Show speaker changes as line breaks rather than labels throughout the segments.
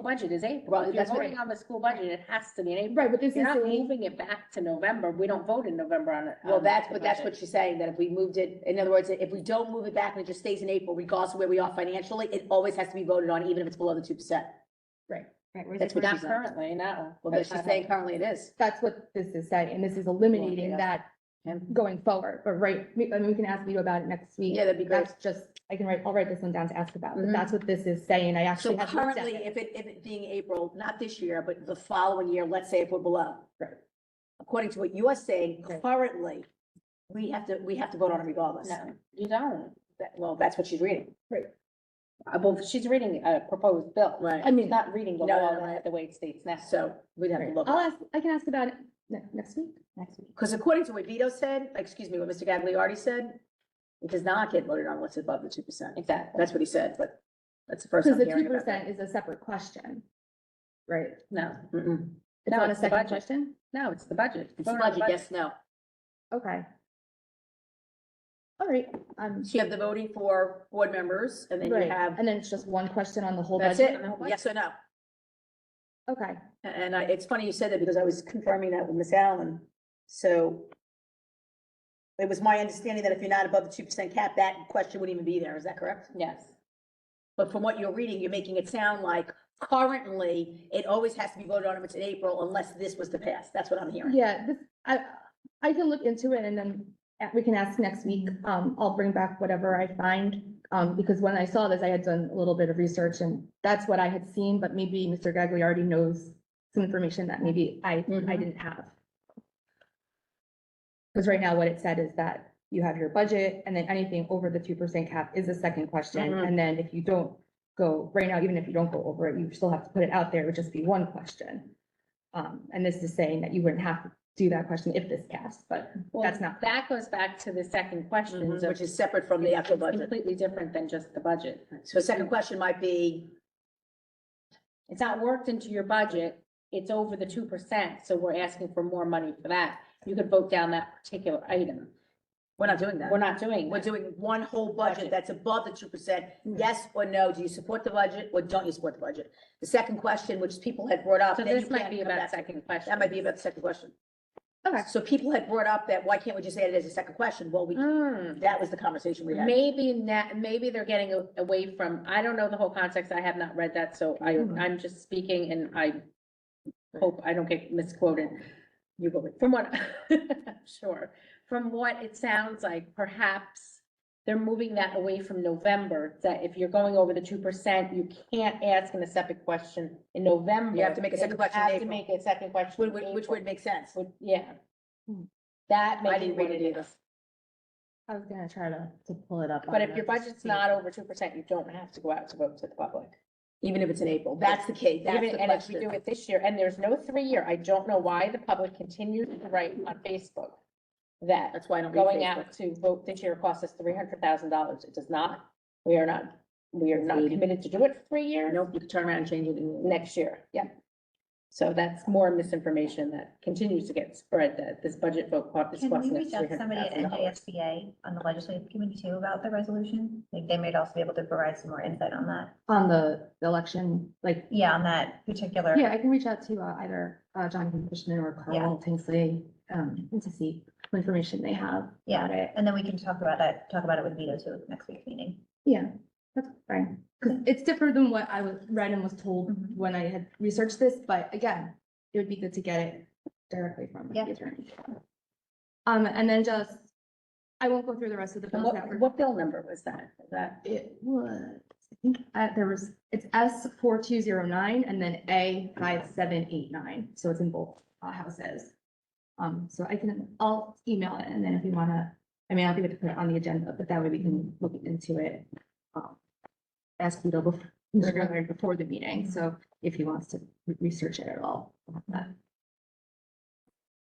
Budget is
Well,
April,
you're
that's
voting-
voting on the school budget, it has to be in April.
Right, but this
If You're
is,
not
the-
moving it back to November, we don't vote in November on it.
Well,
on
that's,
the
but that's what
budget.
she's saying, that if we moved it, in other words, if we don't move it back and it just stays in April, regardless of where we are financially, it always has to be voted on, even if it's below the two percent.
right, where's
That's
the
what
first
Not
she's
one?
currently, no.
Well, that's she's saying currently it is.
that's what this is saying, and this is eliminating
yeah.
that going forward, but right, we- I mean, we can ask Vito about it next week.
Yeah, that'd be great.
That's just, I can write, I'll write this one down to ask about, but
Mhm.
that's what this is saying, I
So
actually have looked at
currently,
it.
if it, if it being April, not this year, but the following year, let's say if we're below.
Right.
According to what you are saying,
Right.
currently, we have to, we have to vote on it regardless.
No, you don't.
That- Well, that's what she's reading.
Uh, Well, she's reading a proposed bill.
Right.
I
She's
mean,
not reading the
No,
law
no, no.
that- the way it states now.
So we'd have to
right.
look.
I'll ask, I can ask about it ne- next week.
Next week.
Because according to what Vito said, excuse me, what Mr. Gagliardi said, it does not get voted on what's above the two percent.
Exactly,
That's what he said, but that's the first
Because
I'm
the two
hearing about that.
percent is a separate question, right?
no,
Mm-mm.
It's
No,
not a
it's the
second
budget.
question?
no, it's the budget.
It's
Vote on the
budget, yes, no.
Okay. All right, um,
So you have the voting for board members and then
right,
you have,
and then it's just one question on the whole
that's
budget?
it,
the whole
yes or no.
Okay,
And I, it's funny you said that because I was confirming that with Miss Allen. So it was my understanding that if you're not above the two percent cap, that question wouldn't even be there. Is that correct?
Yes,
But from what you're reading, you're making it sound like currently, it always has to be voted on if it's in April unless this was to pass. That's what I'm hearing.
yeah, this, I, I can look into it and then a- we can ask next week. Um, I'll bring back whatever I find. Um, because when I saw this, I had done a little bit of research and that's what I had seen, but maybe Mr. Gagliardi knows some information that maybe I, I
Mhm.
didn't have. Because right now what it said is that you have your budget and then anything over the two percent cap is a second question.
Mhm.
And then if you don't go, right now, even if you don't go over it, you still have to put it out there. It would just be one question. Um, and this is saying that you wouldn't have to do that question if this passed, but
well,
that's not,
that goes back to the second question,
Mhm, Which
which is
is separate from
Mm-hmm.
the actual budget.
completely different than just the budget.
So a second question might be,
It's not worked into your budget, it's over the two percent, so we're asking for more money for that. You could vote down that particular item.
we're not doing that.
We're not Hmm. doing
We're
that.
doing one whole budget
Budget.
that's above the two percent.
Mm.
Yes or no, do you support the budget or don't you support the budget? The second question, which people had brought up.
So
then you
this might
can't
be
come
about
back to-
second question.
That might be about the second question.
okay.
So people had brought up that, why can't we just add it as a second question? Well, we,
Hmm.
that was the conversation we had.
Maybe not, maybe they're getting a- away from, I don't know the whole context, I have not read that, so I,
Hmm.
Mhm.
I'm just speaking and I hope I don't get misquoted. You will, from what, sure, from what it sounds like, perhaps they're moving that away from November, that if you're going over the two percent, you can't ask in a separate question in November.
You have to make a second question in
You have to
April.
make a second question
Which
in
would, which
April.
would make sense.
Would- Yeah.
Hmm.
That
I
may be
didn't
what
read
it
it either.
is.
I was gonna try to, to pull it up.
But if your budget's not over two percent, you don't have to go out to vote to the public.
Even if it's in April, that's the case, that's
Even,
the
and if we do
question.
it this year, and there's no three-year, I don't know why the public continues to write on Facebook that
That's why I don't read
going
Facebook.
out to vote this year costs us three hundred thousand dollars. It does not. We are not, we are not
Agreed.
committed to do it for three years.
Nope, you can turn around and change it. in-
Next year, yeah. So that's more misinformation that continues to get spread, that this budget vote cost is
Can we
costing us
reach out
three hundred
to somebody at
thousand dollars.
NJSBA on the legislative committee too about the resolution? Like they might also be able to provide some more insight on that.
On the the election, like,
Yeah, on that particular.
yeah, I can reach out to uh, either uh, Jonathan Cushman or Carl Tinsley, um, and to see what information they have.
Yeah.
about it.
And then we can talk about that, talk about it with Vito too at the next week's meeting.
Yeah, that's fine, Mm-hmm. because it's different than what I was read and was told
Mhm.
when I had researched this, but again, it would be good to get it directly from the
Yeah.
attorney. Um, and then just, I won't go through the rest of the
And
bills that
What,
were.
what bill number was that? Is That,
It was, I think, uh, there was, it's S four two zero nine and then A five seven eight nine, so it's in both uh, houses. Um, so I can, I'll email it and then if you wanna, I mean, I'll be able to put it on the agenda, but that way we can look into it. um, Ask Vito bef- Mr. Gallagher before the meeting, so if he wants to re- research it at all. we'll have that.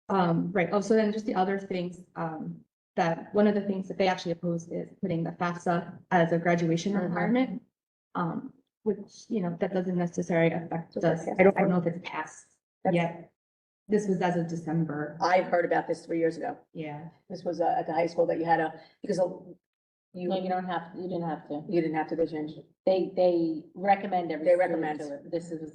Um, right, oh, so then just the other things, um, that one of the things that they actually opposed is putting the FAFSA as a graduation
Mhm.
requirement. Um, which, you know, that doesn't necessarily affect
Doesn't
us.
affect
I don't, I don't know if it's passed
That's- Uh,
yet. This was as of December,
I heard about this three years ago.
yeah.
This was uh, at the high school that you had a, because uh, you,
no, you don't have, you didn't have to.
you didn't have to, they changed it.
They, they recommend every.
They
student
recommend.
to it. This is